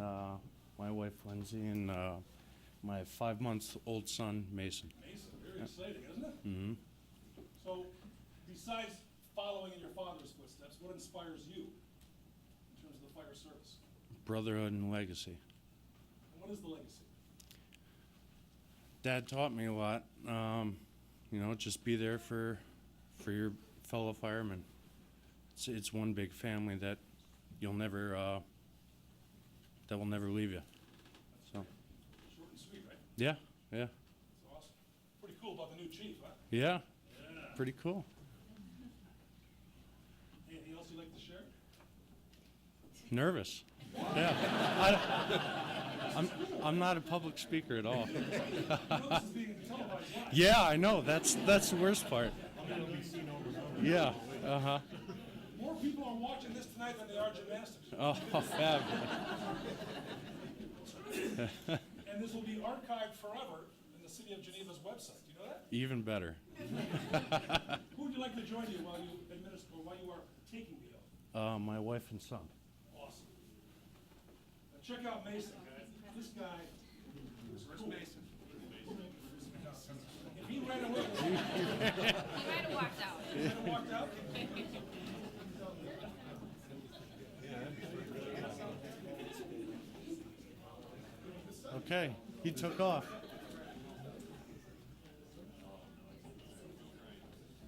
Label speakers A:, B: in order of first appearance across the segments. A: uh, my wife Lindsay, and uh, my five-month-old son Mason.
B: Mason, very exciting, isn't it?
A: hmm
B: So, besides following in your father's footsteps, what inspires you in terms of the fire service?
A: Brotherhood and legacy.
B: And what is the legacy?
A: Dad taught me a lot. Um, you know, just be there for for your fellow firemen. It's it's one big family that you'll never uh, that will never leave you. So
B: Short and sweet, right?
A: yeah, yeah,
B: It's awesome. Pretty cool about the new chief, huh?
A: yeah.
B: Yeah.
A: Pretty cool.
B: Anything else you'd like to share?
A: Nervous. Yeah. I, I'm I'm not a public speaker at all.
B: You know this is being televised live.
A: Yeah, I know. That's that's the worst part. Yeah. Uh huh.
B: More people are watching this tonight than they are gymnastics.
A: Oh, fab.
B: And this will be archived forever in the city of Geneva's website. Do you know that?
A: Even better.
B: Who would you like to join you while you administer, or while you are taking the oath?
A: Uh, my wife and son.
B: Awesome. Now check out Mason, guys. This guy. Rich Mason. If he ran away, if
C: He might have walked out.
B: he had walked out,
A: Okay, he took off.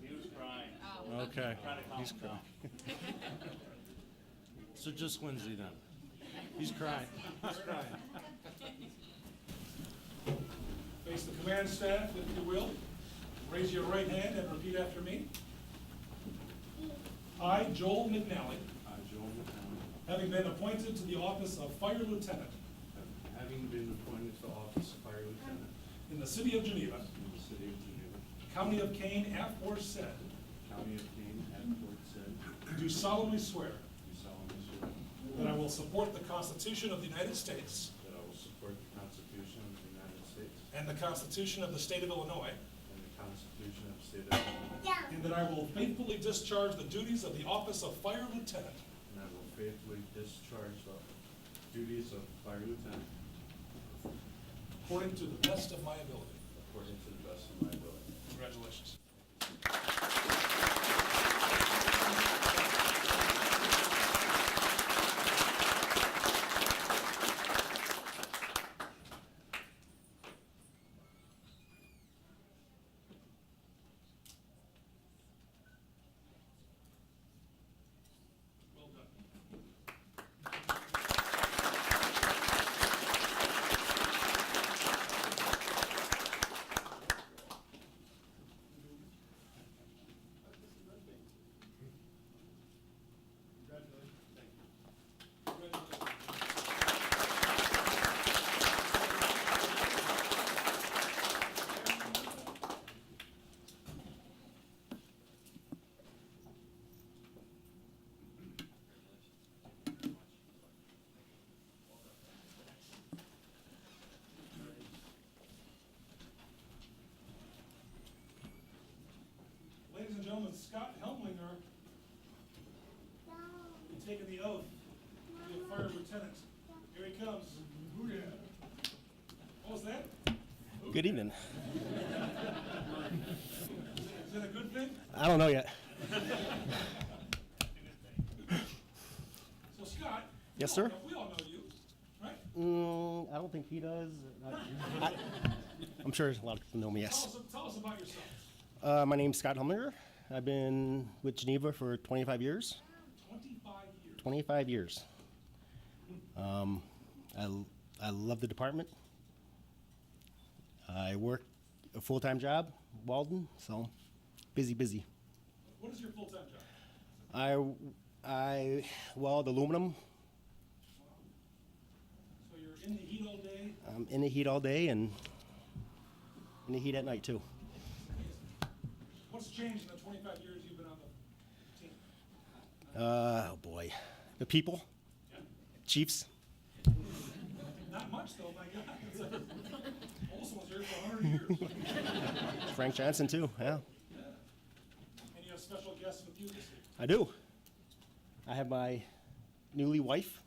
D: He was crying.
A: Okay, he's crying. so just Lindsay then. He's crying.
B: face the command staff if you will. Raise your right hand and repeat after me. I, Joel McNally,
E: I, Joel McCown,
B: having been appointed to the office of Fire Lieutenant
E: having been appointed to office of fire lieutenant
B: in the city of Geneva,
E: in the city of Geneva,
B: County of Kane, aforesaid,
E: county of Kane, and Port said, do
B: do solemnly swear
E: solemnly swear
B: that I will support the Constitution of the United States
E: that I will support the Constitution of the United States
B: And the Constitution of the State of Illinois.
E: and the Constitution of the state of Illinois,
B: And that I will faithfully discharge the duties of the office of Fire Lieutenant
E: and I will faithfully discharge the duties of fire lieutenant
B: according to the best of my ability.
E: according to the best of my ability.
B: Congratulations. Well done. Ladies and gentlemen, Scott Helmlinger will be taking the oath to be a fire lieutenant. Here he comes. What was that?
F: Good evening.
B: Is that a good thing?
F: I don't know yet.
B: So Scott? we
F: Yes,
B: all
F: sir.
B: know- We all know you, right?
F: Mm, I don't think he does. I, am sure a lot of people know me.
B: Tell
F: Yes.
B: us, tell us about yourself.
F: Uh, my name's Scott Humlinger. I've been with Geneva for 25 years.
B: Twenty-five years.
F: 25 years. Um, I, l- I love the department. I work a full-time job, Walden, so busy, busy.
B: What is your full-time job?
F: I I weld aluminum.
B: So you're in the heat all day?
F: I'm in the heat all day and in the heat at night too.
B: What's changed in the twenty-five years you've been on the team?
F: Uh, oh boy, the people, Chiefs.
B: Not much though, my God. It's like, Olson was here for hundred years.
F: Frank Johnson too. Yeah,
B: And you have special guests with you this year.
F: I do. I have my newly wife,